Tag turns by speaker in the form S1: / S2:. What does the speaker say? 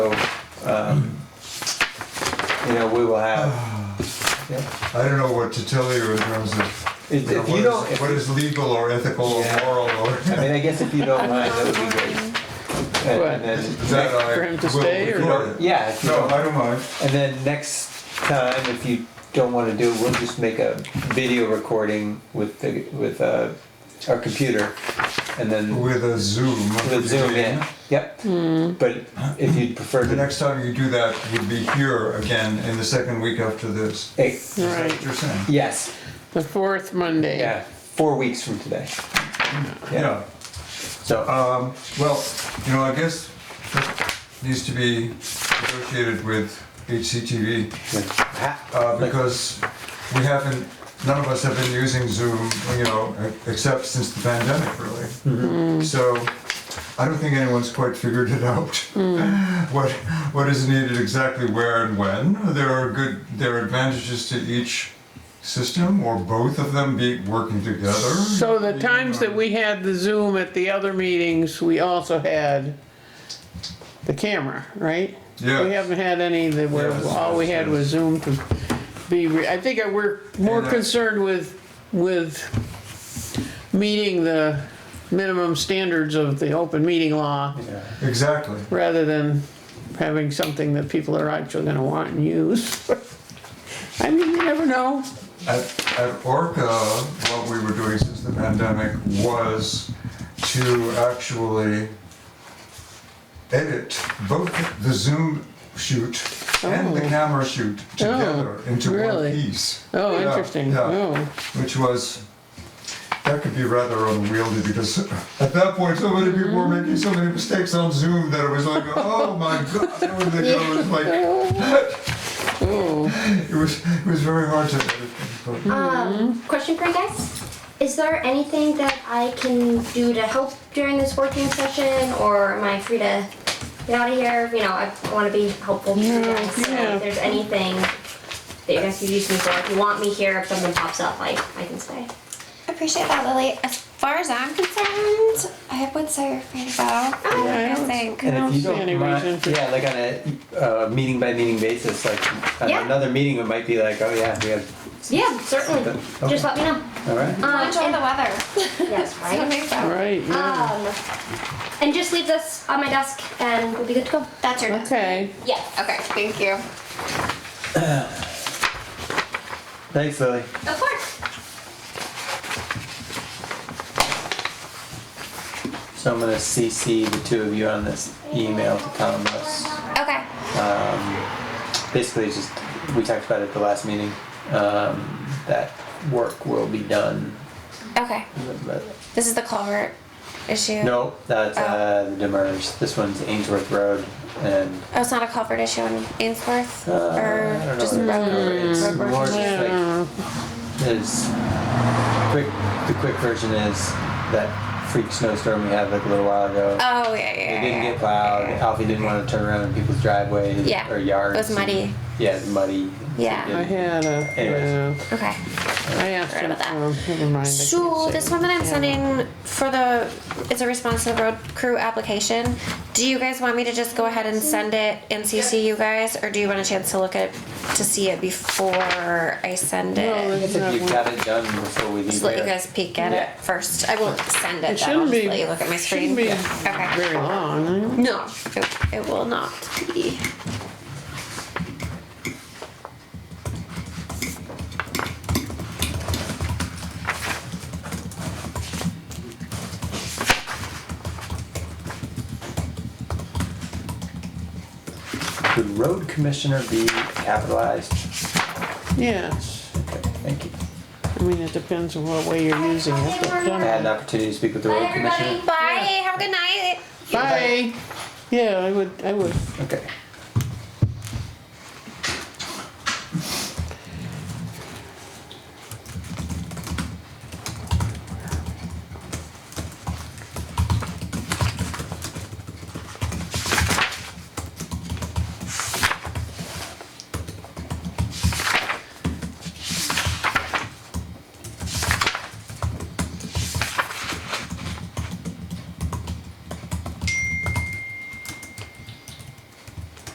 S1: So, um, you know, we will have, yeah.
S2: I don't know what to tell you in terms of.
S1: If-
S2: you know,
S1: if
S2: what
S1: you
S2: is-
S1: don't- if
S2: What
S1: you-
S2: is legal or ethical or
S1: Yeah.
S2: moral or.
S1: I mean, I guess if you don't mind, that would be great. And-
S3: What?
S1: and then
S2: Is that
S1: next-
S2: I
S3: for him to
S2: will
S3: stay, or-
S2: record it?
S1: Yeah, if you
S2: No,
S1: don't-
S2: I don't mind.
S1: and then next time, if you don't wanna do, it, we'll just make a video recording with the, with, uh, our computer, and then
S2: With a Zoom.
S1: with Zoom in, yep. But if you'd prefer to,
S2: The next time you do that, you'd be here again in the second week after this.
S1: eh,
S2: Is that what
S3: Right,
S2: you're saying?
S1: yes,
S3: the fourth Monday.
S1: yeah, four weeks from today.
S2: Yeah.
S1: So,
S2: Um, well, you know, I guess that needs to be negotiated with HCTV. uh, because we haven't, none of us have been using Zoom, you know, except since the pandemic, really. So I don't think anyone's quite figured it out. What, what is needed exactly where and when. There are good, there are advantages to each system or both of them be working together.
S3: So the times that we had the Zoom at the other meetings, we also had the camera, right?
S2: Yeah.
S3: We haven't had any that were,
S2: Yes,
S3: all we
S2: yes,
S3: had
S2: yes.
S3: was Zoom to be, re- I think I- we're more
S2: And I-
S3: concerned with, with meeting the minimum standards of the open meeting law
S2: uh,
S1: yeah.
S2: Exactly.
S3: rather than having something that people are actually gonna want and use. I mean, you never know.
S2: At, at Orca, what we were doing since the pandemic was to actually edit both the Zoom shoot and the
S3: Oh.
S2: camera shoot together
S3: Oh,
S2: into one
S3: really?
S2: piece.
S3: Oh,
S2: Yeah,
S3: interesting.
S2: yeah.
S3: Oh.
S2: Which was, that could be rather unwieldy because at that point, so many people were making so many mistakes on Zoom that it was like, oh my God, it was like, it was like,
S3: Oh,
S2: it was, it was very hard to edit. but-
S4: Mm-hmm.
S5: Um, question for you guys. Is there anything that I can do to help during this working session, or am I free to get out of here? You know, I want to be helpful to you guys. So
S3: Yeah.
S5: if there's anything that you guys could use me for, if you want me here, if something pops up, I, I can stay.
S4: Appreciate that, Lily. As far as I'm concerned, I would say you're free to go.
S3: Yeah,
S4: I
S3: I don't-
S4: think.
S3: I
S1: Oh. And
S3: don't
S1: if you
S3: see
S1: don't
S3: any reason
S1: mind,
S3: for-
S1: yeah, like on a, uh, meeting by meeting basis, like on
S5: Yeah.
S1: another meeting, it might be like, oh yeah, we have,
S5: Yeah, certainly.
S1: Okay.
S5: Just let me know.
S1: all right?
S5: Um,
S4: Enjoy the weather.
S5: yes,
S4: It's gonna
S5: right.
S4: be fun.
S3: right, yeah.
S5: Um, and just leave this on my desk, and we'll be good to go.
S4: That's your.
S3: Okay,
S5: Yeah.
S4: Okay, thank you.
S1: Thanks, Lily.
S5: Of course.
S1: So I'm gonna CC the two of you on this email to Tom Russ.
S4: Okay.
S1: Um, basically, it's just, we talked about it at the last meeting, um, that work will be done.
S4: Okay.
S1: but-
S4: This is the culvert issue.
S1: No, that's,
S3: Oh.
S1: uh, the demers, this one's Ainsworth Road and,
S4: Oh, it's not a culvert issue in Ainsworth?
S1: uh,
S4: or
S1: I don't
S4: just
S1: know. It's
S4: road
S1: more
S4: working?
S1: just like
S3: yeah,
S1: is quick. The quick version is that freak snowstorm we had like a little while ago.
S4: Oh, yeah, yeah,
S1: it
S4: yeah.
S1: didn't
S4: yeah.
S1: get plowed. Alfie didn't want to turn around in people's driveways
S4: Yeah.
S1: or yards.
S4: It was muddy.
S1: and- yeah, it's muddy.
S4: Yeah.
S3: I had a, yeah,
S1: Anyways.
S4: Okay.
S3: I asked
S4: Forgot
S3: him,
S4: about that.
S3: um, never mind. I
S4: So
S3: can't
S4: this
S3: say.
S4: one that I'm
S3: Yeah.
S4: sending for the, it's a response to the road crew application. Do you guys want me to just go ahead and send it and CC you guys, or do you want a chance to look at, to see it before I send
S3: No,
S4: it?
S3: this-
S1: If you got it done before we leave
S4: Just let you
S1: here.
S4: guys peek at
S1: Yeah.
S4: it first. I won't
S3: It
S4: send it, then I'll
S3: shouldn't
S4: just
S3: be,
S4: let you look at my screen.
S3: shouldn't be
S4: Okay.
S3: very long.
S4: No, it, it will not be.
S1: Would road commissioner be capitalized?
S3: Yes,
S1: Okay, thank you.
S3: I mean, it depends on what way you're using it, but um,
S1: I had an
S3: some-
S1: opportunity to speak with the road commissioner.
S4: Bye, have a good night.
S3: bye. Yeah, I would, I would,
S1: Okay.